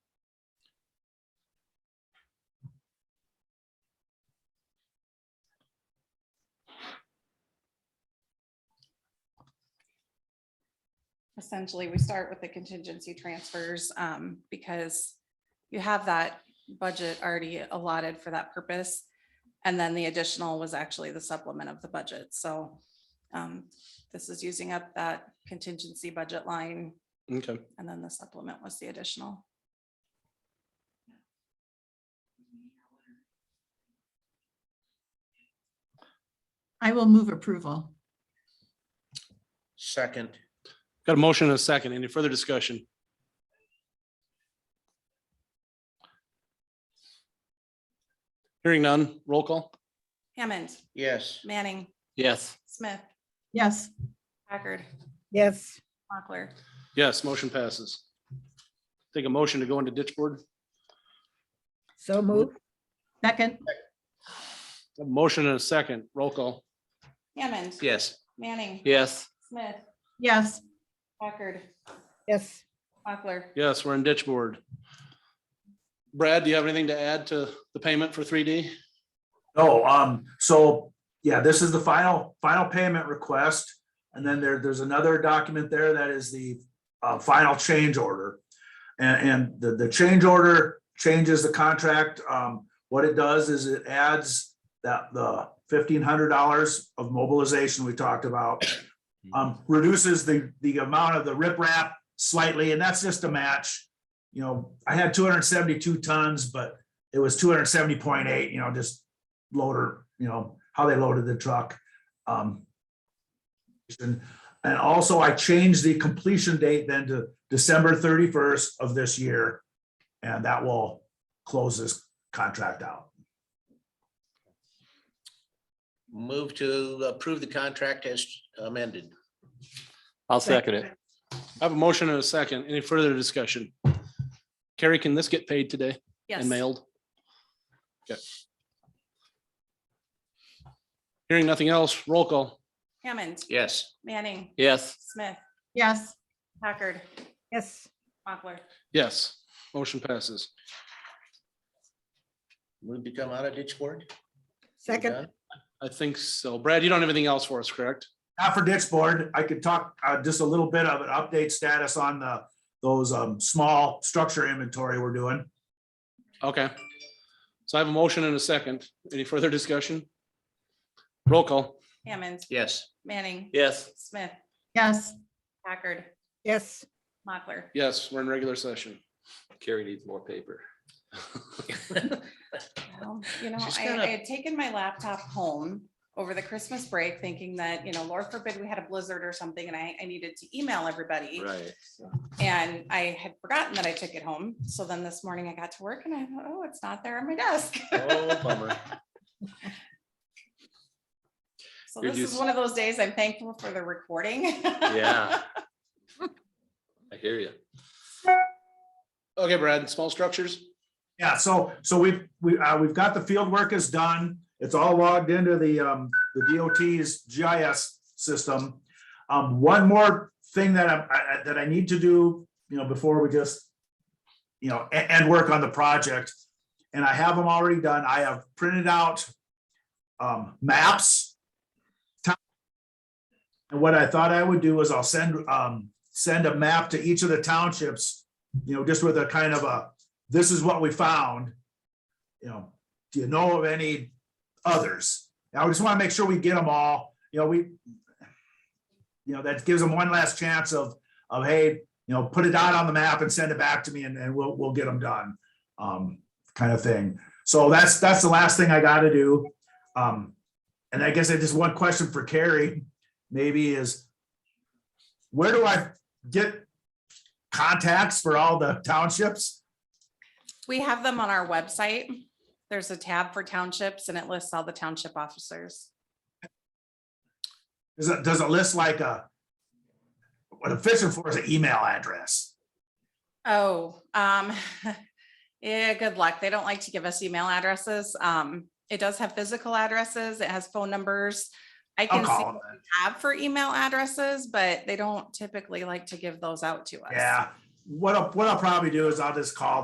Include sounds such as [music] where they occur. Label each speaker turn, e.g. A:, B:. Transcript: A: essentially, we start with the contingency transfers, um, because you have that budget already allotted for that purpose. And then the additional was actually the supplement of the budget, so, um, this is using up that contingency budget line,
B: Okay.
A: and then the supplement was the additional.
C: I will move approval.
D: Second,
B: Got a motion and a second. Any further discussion? Hearing none, roll call.
A: Hammond,
D: yes,
A: Manning,
B: Yes.
A: Smith,
C: Yes,
A: Packard,
E: yes,
A: Mochler.
B: Yes, motion passes. Take a motion to go into ditch board.
E: so move,
C: second,
B: A motion and a second, roll call.
A: Hammond,
B: Yes.
A: Manning,
B: Yes.
A: Smith,
C: yes,
A: Packard,
E: yes.
A: Mochler.
B: Yes, we're in ditch board. Brad, do you have anything to add to the payment for three D?
F: No, um, so, yeah, this is the final, final payment request. And then there, there's another document there that is the uh, final change order. And, and the, the change order changes the contract. Um, what it does is it adds that the fifteen hundred dollars of mobilization we talked about. Um, reduces the, the amount of the riprap slightly, and that's just a match. You know, I had two hundred and seventy-two tons, but it was two hundred and seventy point eight, you know, just loader, you know, how they loaded the truck. Um, And and also I changed the completion date then to December thirty-first of this year. And that will close this contract out.
D: move to approve the contract as amended.
G: I'll second it.
B: I have a motion and a second. Any further discussion? Carrie, can this get paid today
A: Yes.
B: and mailed? Okay. Hearing nothing else, roll call.
A: Hammond,
D: Yes,
A: Manning,
G: Yes,
A: Smith,
C: yes,
A: Packard,
E: Yes,
A: Mochler.
B: Yes, motion passes.
D: move to come out of ditch board. We're
E: second,
D: done?
B: I think so. Brad, you don't have anything else for us, correct?
F: Not for ditch board, I could talk uh, just a little bit of an update status on the, those um, small structure inventory we're doing.
B: Okay. So I have a motion and a second. Any further discussion? Roll call.
A: Hammond,
D: Yes,
A: Manning,
G: yes,
A: Smith,
C: yes,
A: Packard,
E: yes,
A: Mochler.
B: Yes, we're in regular session.
G: Carrie needs more paper.
D: [laughs]
A: Well, You know,
D: She's
A: I,
D: gonna-
A: I had taken my laptop home over the Christmas break thinking that, you know, Lord forbid we had a blizzard or something and I, I needed to email everybody.
G: Right.
A: And I had forgotten that I took it home. So then this morning I got to work and I thought, oh, it's not there on my desk.
D: oh bummer.
A: [laughs] So
G: You're
A: this is
G: just-
A: one of those days I'm thankful for the recording.
G: Yeah. I hear you.
B: Okay, Brad, small structures?
F: Yeah, so, so we've, we, uh, we've got the field work is done. It's all logged into the, um, the DOT's GIS system. Um, one more thing that I- I, I- that I need to do, you know, before we just, you know, a- and, work on the project. And I have them already done. I have printed out, um, maps. Town- And what I thought I would do is I'll send, um, send a map to each of the townships, you know, just with a kind of a, this is what we found. You know, do you know of any others? Now, I just want to make sure we get them all, you know, we, you know, that gives them one last chance of, of, hey, you know, put it out on the map and send it back to me and, and we'll, we'll get them done. Um, kind of thing. So that's, that's the last thing I got to do. Um, and I guess I just one question for Carrie, maybe is where do I get contacts for all the townships?
A: We have them on our website. There's a tab for townships and it lists all the township officers.
F: Does it, does it list like a, what I'm fishing for is an email address?
A: Oh, um, [laughs] yeah, good luck. They don't like to give us email addresses. Um, it does have physical addresses. It has phone numbers. I
F: I'll
A: can see
F: call them.
A: what we have for email addresses, but they don't typically like to give those out to us.
F: Yeah, what I'll, what I'll probably do is I'll just call